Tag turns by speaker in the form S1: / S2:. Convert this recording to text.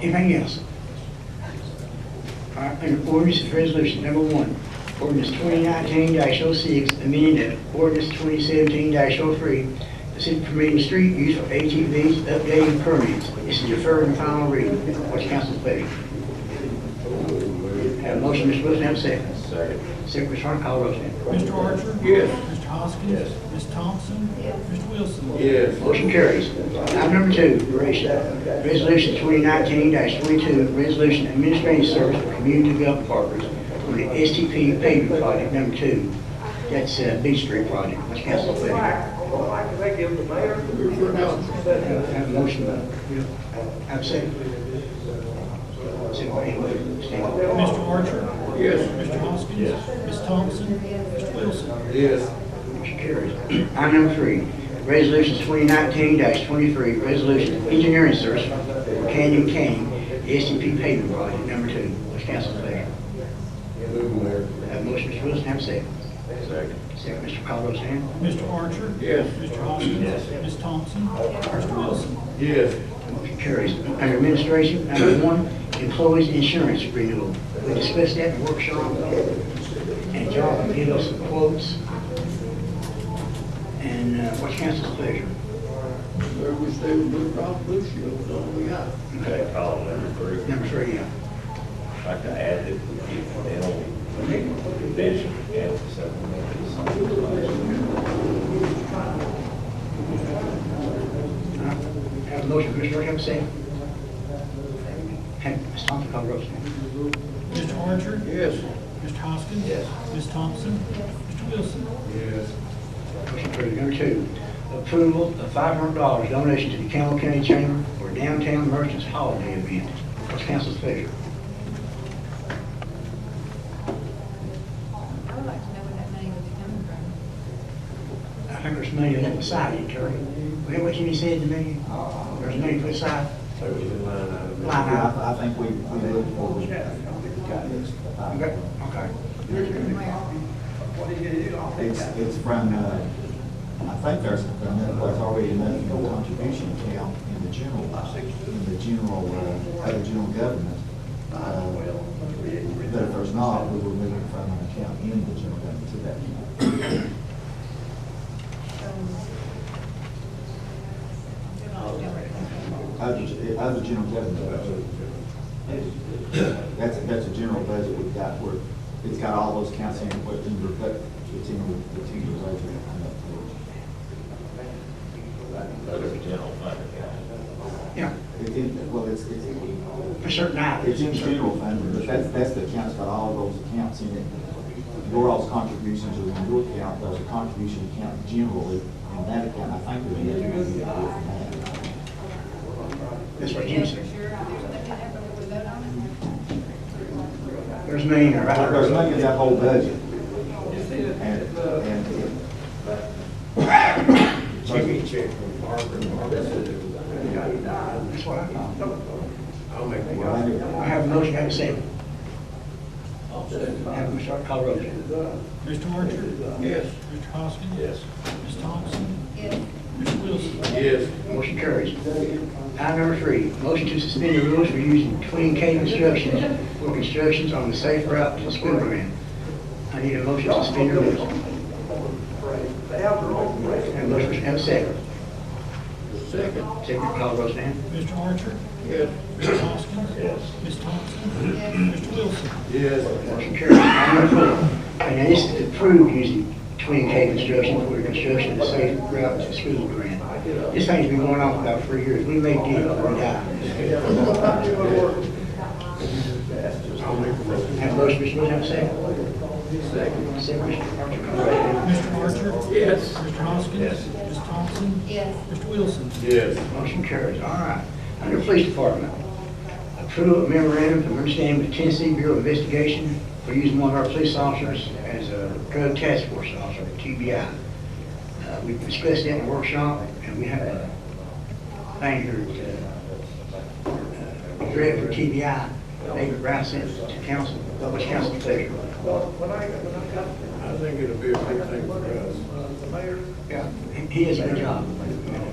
S1: Anything else? All right, under ordinance, is resolution number one, ordinance twenty nineteen 6 amending ordinance twenty seventeen 3 the city permitting street use for ATVs, updating permits. This is deferred and final reading. What's council's pleasure? Have a motion, Mr. Wilson, have a second.
S2: Second.
S1: Second, Mr. Harper, call the roll, please.
S3: Mr. Archer?
S2: Yes.
S3: Mr. Hoskins?
S2: Yes.
S3: Ms. Thompson? Mr. Wilson?
S2: Yes.
S1: Motion carries. Item number two, res- resolution 2019-22, resolution administering service for community development partners for the STP pavement project number two. That's uh, Beach Street project. What's council's pleasure?
S4: I can make him the mayor.
S1: Have a motion. uh, Have a second. Second by Inglewood. Stand.
S3: Mr. Archer?
S2: Yes.
S3: Mr. Hoskins?
S2: Yes.
S3: Ms. Thompson? Mr. Wilson?
S2: Yes.
S1: Motion carries. Item number three, resolution 2019-23, resolution engineering service for Canyon Kane, the STP pavement project number two. What's council's pleasure?
S2: Move, Mayor.
S1: Have a motion, Mr. Wilson, have a second.
S2: Second.
S1: Second, Mr. Caldwell Stan.
S3: Mr. Archer?
S2: Yes.
S3: Mr. Hoskins?
S2: Yes.
S3: Ms. Thompson? Mr. Wilson?
S2: Yes.
S1: Motion carries. Under administration, number one, employees' insurance renewal. We discussed that in workshop, and John will give us some quotes. And uh, what's council's pleasure?
S2: Where we stay with Blue Cross Blue Shield, don't we got?
S1: Okay.
S5: Call number three,
S1: Number three, yeah.
S5: I can add it, we get dental, vision, and supplemental something.
S1: All right. Have a motion, Commissioner, have a second. Have Ms. Thompson call the roll, please.
S3: Mr. Archer?
S2: Yes.
S3: Mr. Hoskins?
S2: Yes.
S3: Ms. Thompson? Mr. Wilson?
S2: Yes.
S1: Motion approved. Number two, approval of five hundred dollars donation to the Campbell County Chamber for downtown merchants holiday event. What's council's pleasure?
S6: I would like to know where that money would be coming from.
S1: I think there's money on that beside it, Terry. Uh, Wait, what you said to me? There's money put aside,
S2: So we can line item.
S1: line out.
S7: I think we, we looked for, we got this.
S1: Okay, okay.
S7: It's, it's from, uh, I think there's, there's already another contribution account in the general, in the general, uh, other general government. Uh, But if there's not, we will move it from an account in the general government to that account. Other, other general government. That's, that's a general budget we've got where it's got all those counts in, but in your, but it's in your, it's in your budget. I'm not sure.
S5: Other general fund account.
S1: Yeah,
S7: It, it, well, it's, it's,
S1: for certain items.
S7: it's in general fund, but that's, that's the account's got all those accounts in it. Your all's contributions are in your account, there's a contribution account generally, and that account, I think, would be.
S1: That's what
S6: Yeah,
S1: Jim
S6: for sure,
S1: said.
S6: if there's nothing there, but we vote on it.
S1: There's money in there, right?
S7: There's money in that whole budget. And, and it-
S2: Check it, check from Harper and Harper.
S1: That's what I thought.
S2: I'll make the
S7: well, I
S2: motion.
S7: do-
S1: I have a motion, have a second. Have Ms. Hart call the roll, please.
S3: Mr. Archer?
S2: Yes.
S3: Mr. Hoskins?
S5: Yes.
S3: Ms. Thompson?
S6: Yes,
S3: Mr. Wilson?
S2: Yes.
S1: Motion carries. Item number three, motion to suspend the rules for using twin K constructions for constructions on the safe route to school grant. I need a motion to suspend the rules. Have a motion, have a second.
S2: Second.
S1: Second, call the roll, Stan.
S3: Mr. Archer?
S2: Yes.
S3: Mr. Hoskins?
S5: Yes.
S3: Ms. Thompson?
S6: Yes.
S3: Mr. Wilson?
S2: Yes.
S1: Motion carries. Item number four, and this is approved using twin K construction for the construction of the safe route to school grant. This thing's been going on for about three years. We may get it, we die.
S2: I'll make the motion.
S1: Have a motion, Mr. Wilson, have a second. Second, Mr. Archer, call the roll, Stan.
S3: Mr. Archer?
S2: Yes.
S3: Mr. Hoskins?
S5: Yes.
S3: Ms. Thompson?
S6: yes,
S3: Mr. Wilson?
S2: Yes.
S1: Motion carries, all right. Under Police Department, approval of memorandum of understanding with Tennessee Bureau of Investigation for using one of our police officers as a drug task force officer, TBI. Uh, We discussed that in the workshop, and we have a thing here to uh, direct for TBI. David Rice sent it to council, which council pleasure.
S4: When I, when I got
S2: I think it'll be a big thing for us.
S4: uh, the mayor,
S1: Yeah, he- he has a good job.